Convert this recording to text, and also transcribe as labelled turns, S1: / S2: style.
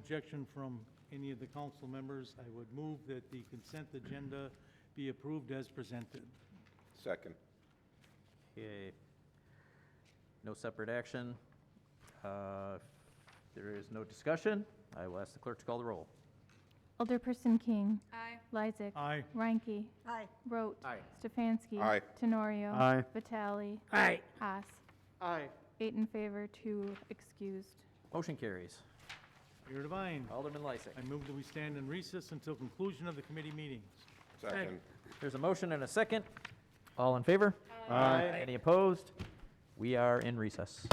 S1: objection from any of the council members, I would move that the consent agenda be approved as presented.
S2: Second.
S3: Okay. No separate action. Uh, if There is no discussion. I will ask the clerk to call the roll.
S4: Alderperson King.
S5: Aye.
S4: Lysick.
S1: Aye.
S4: Reinke.
S5: Aye.
S4: Rote.
S3: Aye.
S4: Stefanski.
S2: Aye.
S4: Tenorio.
S1: Aye.
S4: Vitale.
S6: Aye.
S4: Haas.
S6: Aye.
S4: Eight in favor, two excused.
S3: Motion carries.
S1: Mayor Devine,
S3: Alderman Lysick.
S1: I move that we stand in recess until conclusion of the committee meetings.
S2: Second.
S3: There's a motion and a second. All in favor? Aye. Any opposed? We are in recess.